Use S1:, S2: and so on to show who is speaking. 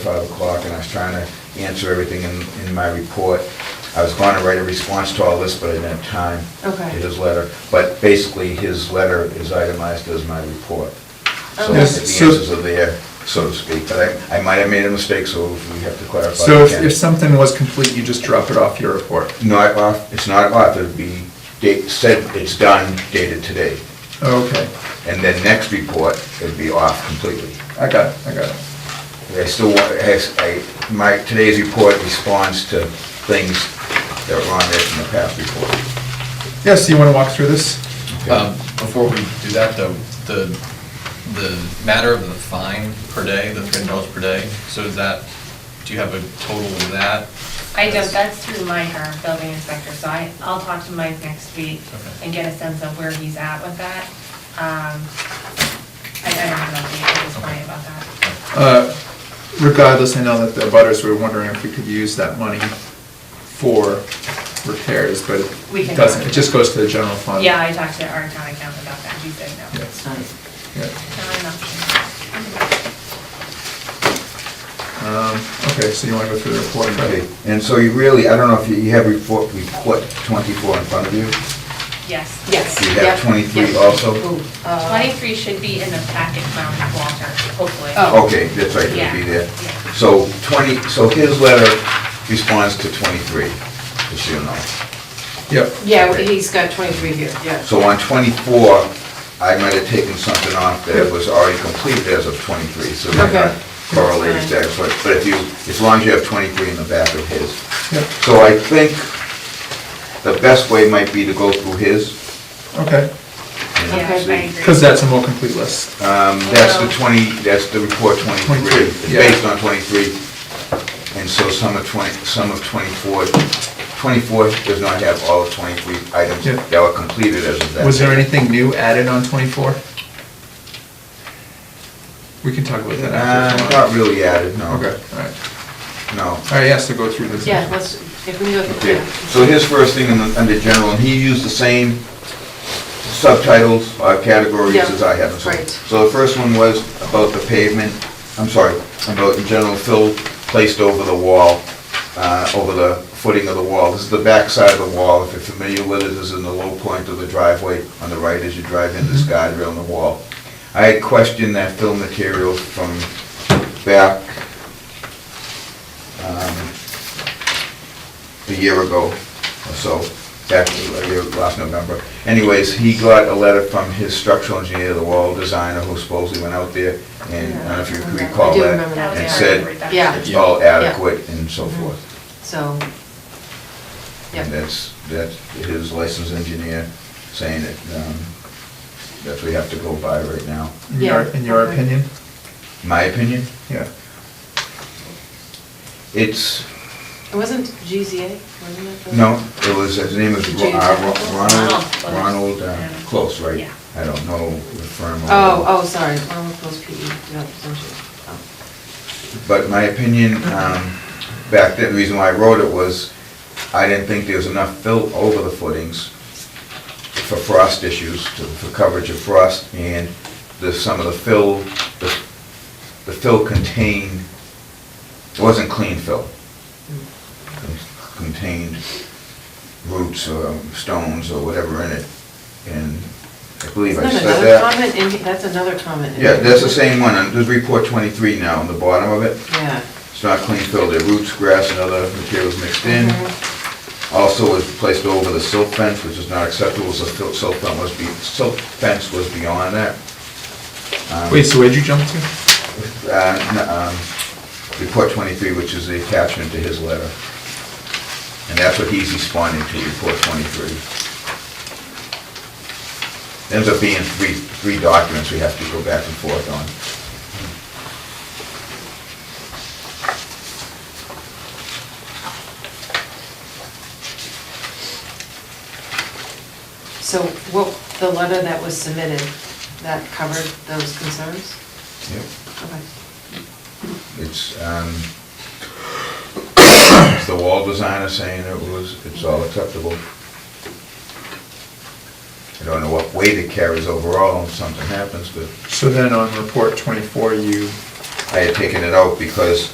S1: five o'clock, and I was trying to answer everything in, in my report. I was going to write a response to all this, but I didn't have time.
S2: Okay.
S1: To his letter, but basically, his letter is itemized as my report. So the
S2: Okay.
S3: Yes, so-
S1: answers are there, so to speak, but I, I might have made a mistake, so if we have to clarify.
S3: So if,
S1: again.
S3: if something was complete, you just drop it off your report?
S1: Not off, it's not off, it'd be date, said it's done, dated today,
S3: Okay,
S1: and then next report, it'd be off completely.
S3: I got it, I got it.
S1: I still want, has, I, my, today's report responds to things that were on there from the past report.
S3: Yeah, so you want to walk through this?
S4: Um, Before we do that, though, the, the matter of the fine per day, the three hundred dollars per day, so is that, do you have a total of that?
S2: I don't, that's through Mike, our building inspector, so I, I'll talk to Mike next week
S4: Okay.
S2: and get a sense of where he's at with that. Um, I I don't have an update at this point about that.
S3: Uh, Regardless, I know that the butters were wondering if we could use that money for repairs, but
S2: We can-
S3: it doesn't, it just goes to the general fund.
S2: Yeah, I talked to our town accountant about that, he said no.
S3: Yeah.
S2: It's
S3: Yeah.
S2: not an option.
S3: Um, Okay, so you want to go through the report,
S1: Okay,
S3: right?
S1: and so you really, I don't know if you, you have report, report twenty-four in front of you?
S2: Yes.
S5: Yes. uh,
S1: Do you have
S5: Yep.
S1: twenty-three
S2: Yes.
S1: also?
S2: Twenty-three should be in the packet from Walter, hopefully.
S5: Oh.
S1: Okay, that's right, it'll be
S2: Yeah,
S1: there.
S2: yeah.
S1: So twenty, so his letter responds to twenty-three, just so you know.
S3: Yep,
S5: Yeah, he's got 23 here, yeah.
S1: So on twenty-four, I might have taken something off that was already completed as of twenty-three, so we're
S5: Okay.
S1: not correlated
S5: That's
S1: that, but but if you, as long as you have twenty-three in the back of his.
S3: yep,
S1: So I think the best way might be to go through his.
S3: okay.
S1: and
S2: Yeah, I
S5: Okay.
S1: see.
S2: agree.
S3: Because that's a more complete list.
S1: Um, that's the twenty, that's the report twenty-three,
S3: 23,
S1: it's
S3: yeah.
S1: based on twenty-three. And so some of twenty, some of twenty-four, twenty-four does not have all of twenty-three items
S3: Yeah.
S1: that were completed as of that.
S3: Was there
S1: date.
S3: anything new added on 24? We can talk about that after.
S1: Uh,
S3: if you
S1: not
S3: want.
S1: really added, no.
S3: Okay, all right.
S1: No.
S3: All right, yeah, so go through this.
S5: Yeah, let's, if we go through,
S1: Okay,
S5: yeah.
S1: so his first thing in the- under general, and he used the same subtitles, uh, categories
S5: Yeah,
S1: as I have. and so-
S5: right.
S1: So the first one was about the pavement, I'm sorry, about in general fill placed over the wall, uh, over the footing of the wall. This is the back side of the wall, if you're familiar with it, this is in the low point of the driveway on the right as you drive in this guide rail in the wall. I had questioned that fill material from back um, a year ago or so, back a year, last November. Anyways, he got a letter from his structural engineer, the wall designer, who supposedly went out there, and I don't know if you
S5: Yeah.
S1: recall
S5: I do
S1: that,
S5: remember
S2: That was
S1: and
S2: our
S1: said,
S2: reduction.
S5: Yeah.
S1: it's all
S5: Yeah.
S1: adequate and so forth.
S5: so,
S1: And
S5: yeah,
S1: that's, that's his licensed engineer saying that, um, that's what we have to go by right now.
S3: In your,
S5: Yeah.
S3: in your
S5: Okay.
S3: opinion?
S1: My opinion,
S3: Yeah.
S1: it's,
S5: it wasn't GZA, wasn't it? the-
S1: No, it was, his name was Ro- uh, Ro- Ronald,
S2: Close.
S1: Ronald uh,
S2: Yeah.
S1: Close, right?
S2: Yeah.
S1: I don't know the firm. or-
S5: Oh, oh, sorry, one with those PE, no, E, don't you? Oh.
S1: But my opinion, um, back then, the reason why I wrote it was, I didn't think there was enough fill over the footings for frost issues, to- for coverage of frost, and the, some of the fill, the the fill contained, it wasn't clean fill. contained roots or stones or whatever in it, and I believe I
S5: Isn't
S1: said
S5: that
S1: that.
S5: another comment in, he- that's another comment. in
S1: Yeah,
S5: here.
S1: that's the same one, and there's report twenty-three now on the bottom of it.
S5: Yeah.
S1: It's not clean filled, there are roots, grass, and other materials mixed in. Also was placed over the silt fence, which is not acceptable, so fil- silt fence was be, silt fence was beyond that. Um,
S3: Wait, so where'd you jump to?
S1: uh, no, um, Report twenty-three, which is the attachment to his letter. And that's what he's responding to, report twenty-three. Ends up being three, three documents we have to go back and forth on.
S5: So what, the letter that was submitted, that covered those concerns?
S1: Yep.
S5: Okay.
S1: It's, um, it's the wall designer saying it was, it's all acceptable. I don't know what weight it carries overall if something happens, but
S3: So then on report 24, you
S1: I had taken it out because